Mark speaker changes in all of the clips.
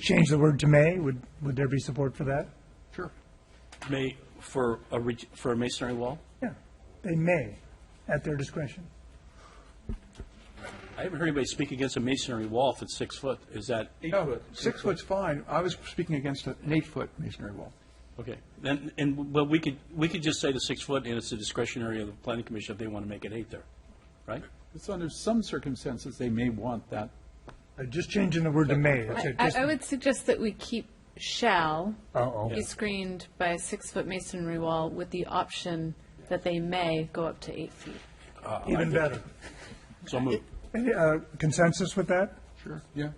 Speaker 1: change the word to may, would, would there be support for that?
Speaker 2: Sure. May, for a, reg- for a masonry wall?
Speaker 1: Yeah, they may, at their discretion.
Speaker 2: I haven't heard anybody speak against a masonry wall if it's six foot. Is that,
Speaker 3: Eight foot. Six foot's fine. I was speaking against an eight-foot masonry wall.
Speaker 2: okay. Then, and, well, we could, we could just say the six foot and it's a discretionary of the planning commission if they want to make it eight there, right?
Speaker 4: It's under some circumstances, they may want that.
Speaker 1: Uh, Just changing the word to may. that's
Speaker 5: I,
Speaker 1: it,
Speaker 5: I
Speaker 1: just-
Speaker 5: I would suggest that we keep shall
Speaker 1: Uh-oh.
Speaker 5: be screened by a six-foot masonry wall with the option that they may go up to eight feet.
Speaker 1: Even better.
Speaker 2: So move.
Speaker 1: Any, uh, Consensus with that?
Speaker 4: Sure. Yeah.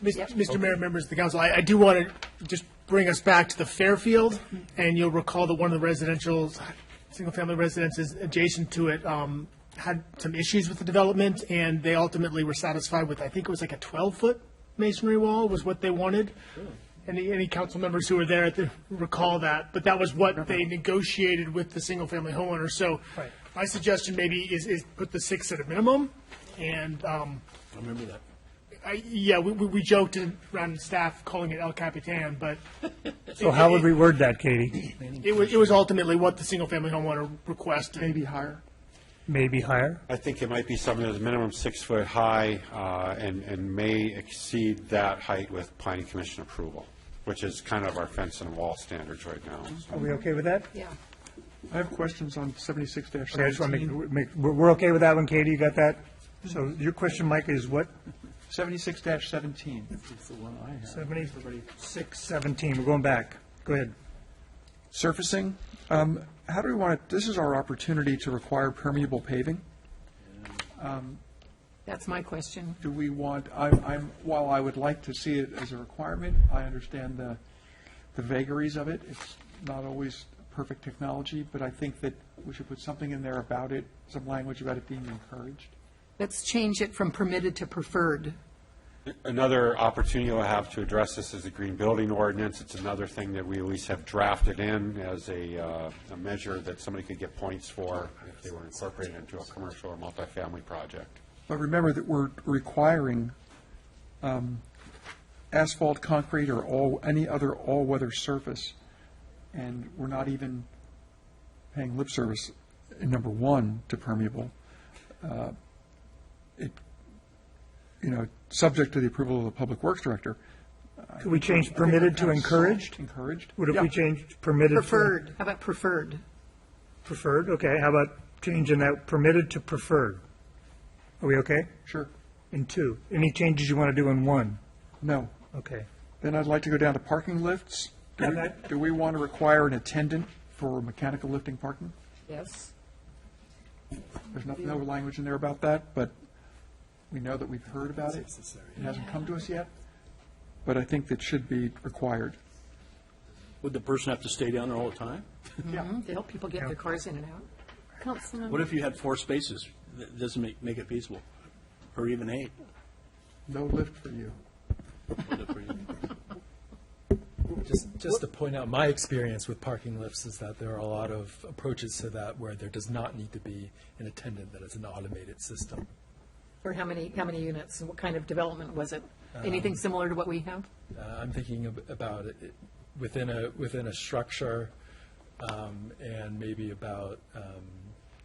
Speaker 6: Mis- Mr. Mayor, members of the council, I, I do want to just bring us back to the Fairfield, and you'll recall that one of the residential, single-family residences adjacent to it, um, had some issues with the development, and they ultimately were satisfied with, I think it was like a twelve-foot masonry wall was what they wanted. Any, any council members who were there at the- recall that, but that was
Speaker 3: Uh-huh.
Speaker 6: what they negotiated with the single-family homeowner, so my suggestion maybe is, is put the six at a minimum, and, um,
Speaker 2: I remember that.
Speaker 6: I, yeah, we, we, we joked around staff calling it El Capitan, but
Speaker 1: So how would we word that, Katie?
Speaker 6: it was, it was ultimately what the single-family homeowner requested.
Speaker 3: Maybe higher.
Speaker 1: Maybe higher?
Speaker 7: I think it might be something that's minimum six foot high uh, and, and may exceed that height with planning commission approval, which is kind of our fence and wall standards right now.
Speaker 1: Are we okay with that?
Speaker 5: Yeah.
Speaker 3: I have questions on seventy-six dash
Speaker 1: Okay, I just want to
Speaker 3: seventeen.
Speaker 1: make, make, we're, we're okay with that one, Katie, you got that? So your question, Mike, is what?
Speaker 3: Seventy-six dash seventeen.
Speaker 1: Seventy-six seventeen, we're going back. Go ahead.
Speaker 3: Surfacing, um, how do we want it, this is our opportunity to require permeable paving. Um,
Speaker 8: That's my question.
Speaker 3: Do we want, I'm, I'm, while I would like to see it as a requirement, I understand the, the vagaries of it. It's not always perfect technology, but I think that we should put something in there about it, some language about it being encouraged.
Speaker 8: Let's change it from permitted to preferred.
Speaker 7: Another opportunity we'll have to address this is the green building ordinance. It's another thing that we at least have drafted in as a, uh, a measure that somebody could get points for if they were incorporated into a commercial or multifamily project.
Speaker 3: But remember that we're requiring um, asphalt, concrete, or all, any other all-weather surface, and we're not even paying lip service in number one to permeable. Uh, It, you know, subject to the approval of the Public Works Director.
Speaker 1: Could we change permitted to encouraged?
Speaker 3: Encouraged?
Speaker 1: Would if
Speaker 3: Yeah.
Speaker 1: we changed permitted to?
Speaker 8: Preferred, how about preferred?
Speaker 1: Preferred, okay, how about changing that permitted to preferred? Are we okay?
Speaker 3: Sure.
Speaker 1: In two, any changes you want to do in one?
Speaker 3: No.
Speaker 1: Okay.
Speaker 3: Then I'd like to go down to parking lifts. Do we- Do we want to require an attendant for mechanical lifting parking?
Speaker 8: Yes.
Speaker 3: There's no, no language in there about that, but we know that we've heard about it. It hasn't come to us yet, but I think that should be required.
Speaker 2: Would the person have to stay down there all the time?
Speaker 8: Mm-hmm. To help people get their cars in and out.
Speaker 5: Councilmember,
Speaker 2: What if you had four spaces? That doesn't make, make it feasible, or even eight.
Speaker 3: No lift for you.
Speaker 9: Just, just to point out, my experience with parking lifts is that there are a lot of approaches to that where there does not need to be an attendant, that it's an automated system.
Speaker 8: Or how many, how many units, and what kind of development was it? Anything similar to what we have?
Speaker 9: Uh, I'm thinking ab- about it- it within a, within a structure, um, and maybe about um,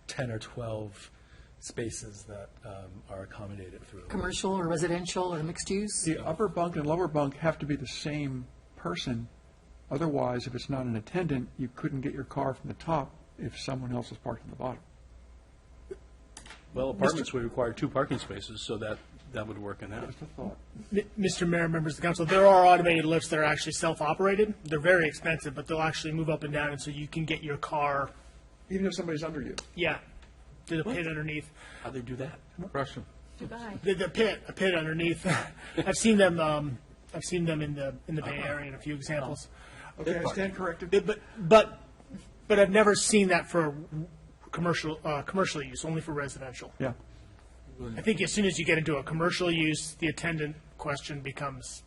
Speaker 9: 10 or 12 spaces that um, are accommodated through. the
Speaker 8: Commercial or residential or mixed use?
Speaker 3: The upper bunk and lower bunk have to be the same person. Otherwise, if it's not an attendant, you couldn't get your car from the top if someone else was parked in the bottom.
Speaker 2: Well, apartments would require two parking spaces, so that, that would work in that.
Speaker 3: Just a thought.
Speaker 6: M- Mr. Mayor, members of the council, there are automated lifts that are actually self-operated. They're very expensive, but they'll actually move up and down, and so you can get your car,
Speaker 3: Even if somebody's under you.
Speaker 6: yeah, to the pit underneath.
Speaker 2: How'd they do that?
Speaker 4: Russian.
Speaker 8: Goodbye.
Speaker 6: The, the pit, a pit underneath. I've seen them, um, I've seen them in the, in the Bay Area in a few examples.
Speaker 3: Uh-huh. Okay, I stand corrected.
Speaker 6: But, but- but, but I've never seen that for commercial, uh, commercial use, only for residential.
Speaker 3: Yeah.
Speaker 6: I think as soon as you get into a commercial use, the attendant question becomes,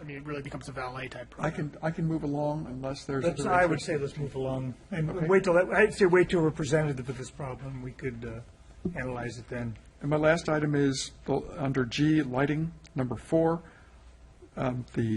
Speaker 6: I mean, it really becomes a valet type.
Speaker 3: I can, I can move along unless there's.
Speaker 1: Let's,
Speaker 3: other
Speaker 1: I would
Speaker 3: interest.
Speaker 1: say let's move along and wait till, that- I'd say wait till we're presented with this problem. We could uh, analyze it then.
Speaker 3: And my last item is, the- under G, lighting, number four. um, the